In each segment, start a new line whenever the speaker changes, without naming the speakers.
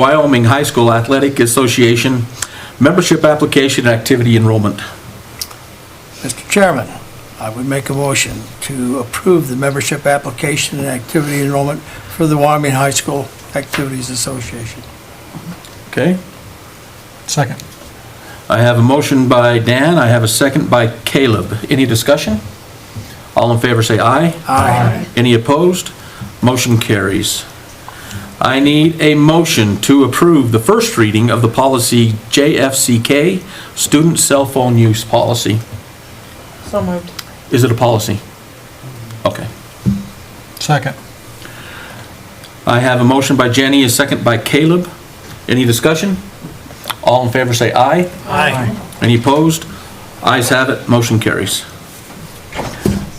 Wyoming High School Athletic Association Membership Application and Activity Enrollment.
Mr. Chairman, I would make a motion to approve the membership application and activity enrollment for the Wyoming High School Activities Association.
Okay?
Second.
I have a motion by Dan, I have a second by Caleb. Any discussion? All in favor say aye.
Aye.
Any opposed? Motion carries. I need a motion to approve the first reading of the policy JFCK, Student Cell Phone Use Policy.
So moved.
Is it a policy? Okay.
Second.
I have a motion by Jenny, a second by Caleb. Any discussion? All in favor say aye.
Aye.
Any opposed? Ayes have it, motion carries.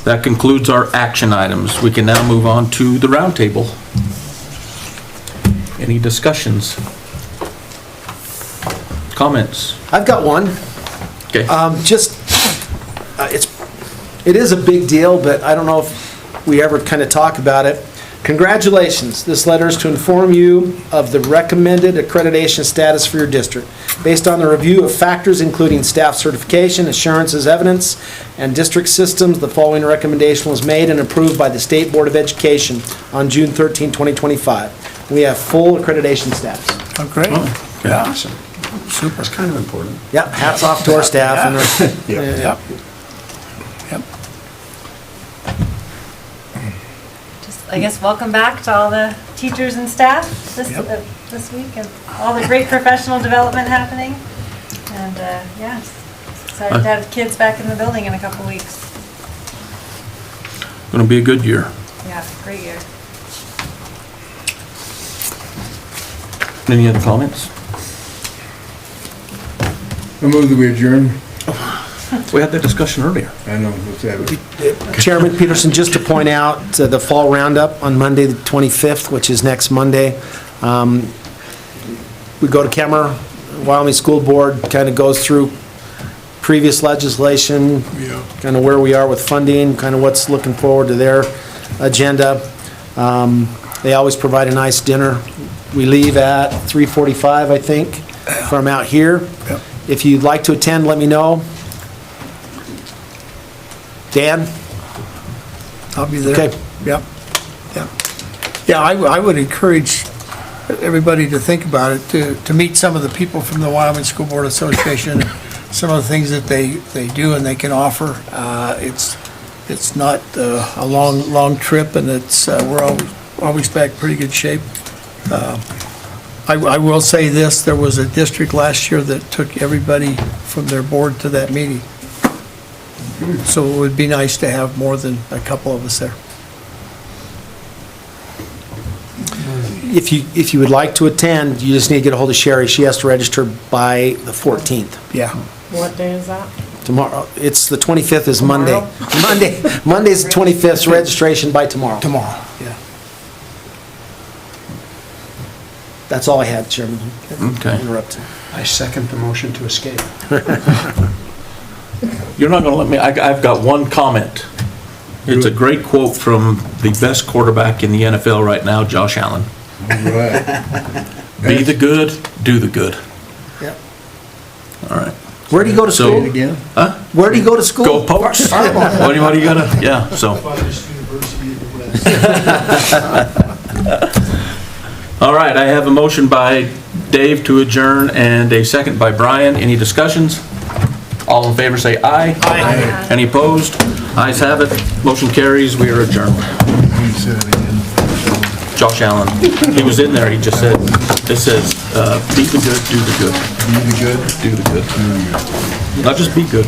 That concludes our action items. We can now move on to the roundtable. Any discussions? Comments?
I've got one.
Okay,
Um, Just, uh, it's, it is a big deal, but I don't know if we ever kind of talk about it. Congratulations, this letter is to inform you of the recommended accreditation status for your district, based on the review of factors including staff certification, assurances, evidence, and district systems. The following recommendation was made and approved by the State Board of Education on June 13, 2025. We have full accreditation status.
Okay?
Oh.
Yeah. Super.
That's kind of important.
Yep, hats off to our staff and our
Yep. Yep.
Just, I guess, welcome back to all the teachers and staff this,
Yep.
uh, this week and all the great professional development happening. And, uh, yeah, s- excited to have kids back in the building in a couple weeks.
gonna be a good year.
Yeah, great year.
Any other comments?
I move that we adjourn.
We had that discussion earlier.
I know, let's have it.
Chairman Peterson, just to point out, uh, the fall roundup on Monday, the 25th, which is next Monday, um, we go to camera, Wyoming School Board kind of goes through previous legislation, kind of where we are with funding, kind of what's looking forward to their agenda. Um, They always provide a nice dinner. We leave at 3:45, I think, from out here. If you'd like to attend, let me know. Dan?
I'll be there.
Okay.
Yep, yep. Yeah, I, w- I would encourage everybody to think about it, to, to meet some of the people from the Wyoming School Board Association, some of the things that they, they do and they can offer. Uh, it's, it's not uh, a long, long trip and it's, uh, we're always, always back pretty good shape. Uh, I, I will say this, there was a district last year that took everybody from their board to that meeting. So it would be nice to have more than a couple of us there.
If you, if you would like to attend, you just need to get a hold of Sherry. She has to register by the 14th,
Yeah.
What day is that?
tomorrow. It's, the 25th is Monday. Monday, Monday's the 25th, so registration by tomorrow.
Tomorrow. Yeah.
That's all I had, Chairman.
Okay.
Interrupted.
I second the motion to escape.
You're not gonna let me, I, I've got one comment. It's a great quote from the best quarterback in the NFL right now, Josh Allen. Be the good, do the good.
Yep.
All right.
Where do you go to
So-
school?
Again?
Where do you go to
Go
school?
Pokes! What do you, what do you gotta, yeah, so. All right, I have a motion by Dave to adjourn and a second by Brian. Any discussions? All in favor say aye. Aye. Any opposed? Ayes have it. Motion carries. We are adjourned. Josh Allen. He was in there, he just said, it says, uh, be the good, do the good.
Be the good.
Do the good. Not just be good,